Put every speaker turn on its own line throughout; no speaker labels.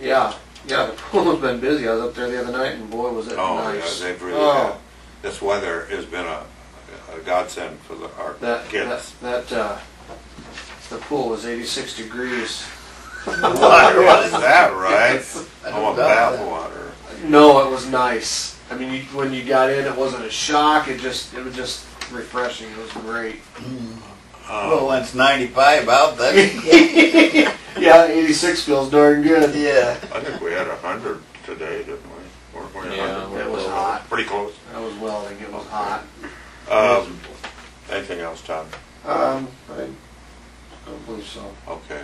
Yeah, yeah, the pool's been busy. I was up there the other night and boy, was it
Oh, yeah,
nice.
they've really,
Oh.
had- this weather has been a a godsend for the- our
That,
kids.
that, that, uh, the pool was eighty-six degrees.
Why is that, right?
I
I want
don't doubt
bath
that.
water.
No, it was nice. I mean, you, when you got in, it wasn't a shock. It just, it was just refreshing. It was great.
Um,
Well, when it's 95 out, that's.
Yeah, eighty-six feels darn good.
yeah.
I think we had a hundred today, didn't we? Weren't we a
Yeah.
hundred?
It was hot.
Pretty close.
That was welding. It was hot.
Um, anything else, Todd?
Um, I don't believe so.
Okay.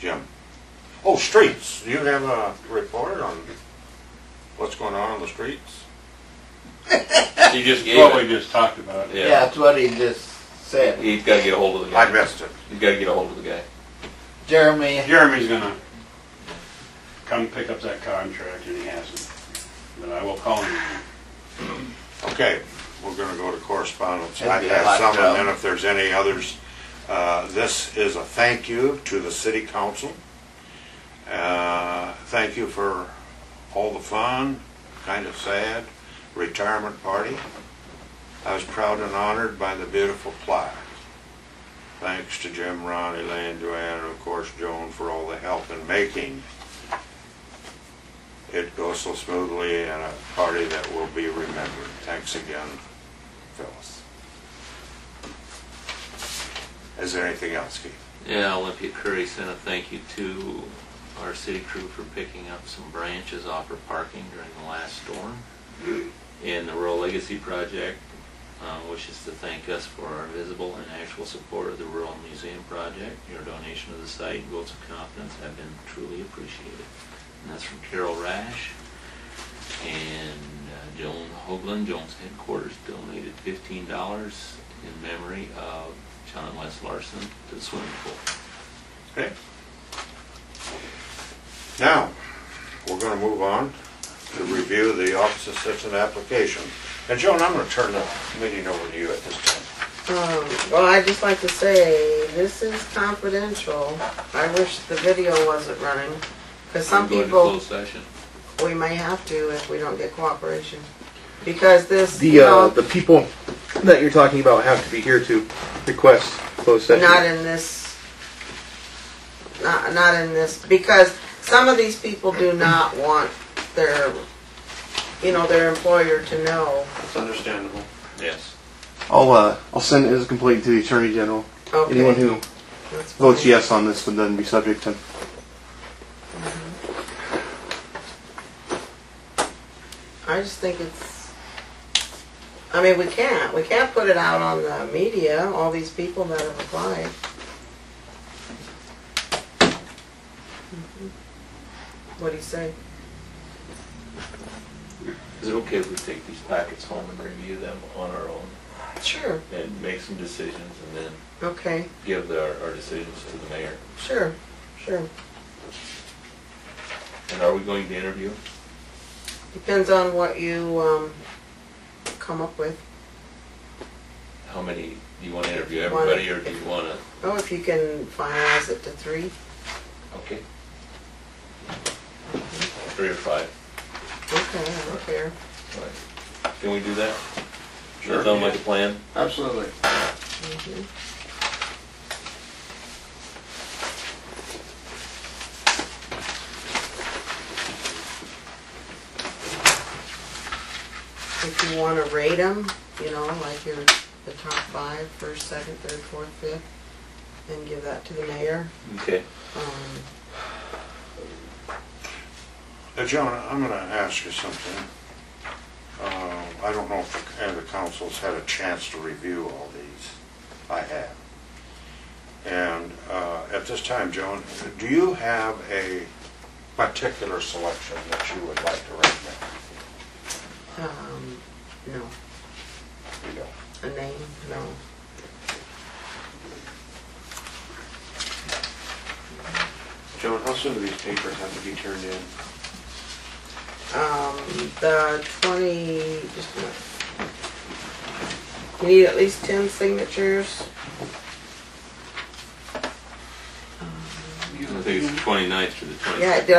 Jim? Oh, streets. Do you have a report on what's going on on the streets?
He just gave
Well, we
it.
just talked about it.
Yeah, that's what he just said.
He's got to get a hold of the
I
guy.
missed it.
He's got to get a hold of the guy.
Jeremy,
Jeremy's gonna come pick up that contract, and he hasn't. But I will call him.
Okay, we're gonna go to correspondence.
That'd
I
be a
have
hot
some, and
job.
then if there's any others. uh, This is a thank you to the city council. Uh, Thank you for all the fun, kind of sad, retirement party. I was proud and honored by the beautiful plaque. Thanks to Jim, Ron, Elaine, Joanne, and of course Joan for all the help in making it goes so smoothly and a party that will be remembered. Thanks again, Phyllis. Is there anything else, Keith?
Yeah, Olympia Curry sent a thank you to our city crew for picking up some branches off her parking during the last storm. And the Rural Legacy Project uh, wishes to thank us for our visible and actual support of the Rural Museum Project. Your donation of the site and votes of confidence have been truly appreciated. And that's from Carol Rash. And uh, Joan Hoagland, Joan's headquarters donated fifteen dollars in memory of John Wes Larson to the swimming pool.
Okay. Now, we're gonna move on to review the office assistant application. And Joan, I'm gonna turn the meeting over to you at this time.
Um, well, I'd just like to say, this is confidential. I wish the video wasn't running, because some
We're going to
people,
closed session.
we may have to if we don't get cooperation. Because this,
The,
you
uh,
know,
the people that you're talking about have to be here to request closed session.
not in this, not, not in this, because some of these people do not want their, you know, their employer to know.
It's understandable.
Yes.
I'll, uh, I'll send it as a complaint to the Attorney General.
Okay,
Anyone who
that's
votes
fine.
yes on this would then be subject to
I just think it's. I mean, we can't. We can't put it out on the media. All these people that have applied. What do you say?
Is it okay if we take these packets home and review them on our own
Sure.
and make some decisions and then
Okay.
give the, our decisions to the mayor?
Sure. Sure.
And are we going to interview?
Depends on what you um, come up with.
How many, do you want to interview everybody or do you want to?
Oh, if you can finalize it to three.
Okay. Three or five.
Okay, I don't care.
All right. Can we do that?
Sure.
That sound like a plan?
Absolutely.
Mhm. If you want to rate them, you know, like your, the top five, first, second, third, fourth, fifth, and give that to the mayor.
Okay.
Um,
Now, Joan, I'm gonna ask you something. Uh, I don't know if the- uh, the council's had a chance to review all these. I have. And uh, at this time, Joan, do you have a particular selection that you would like to recommend?
um, no,
You don't.
a name, no.
Joan, how soon do these papers have to be turned in?
Um, the twenty, just a minute. You need at least ten signatures.
I think it's the 29th to the 27th.
Yeah, did I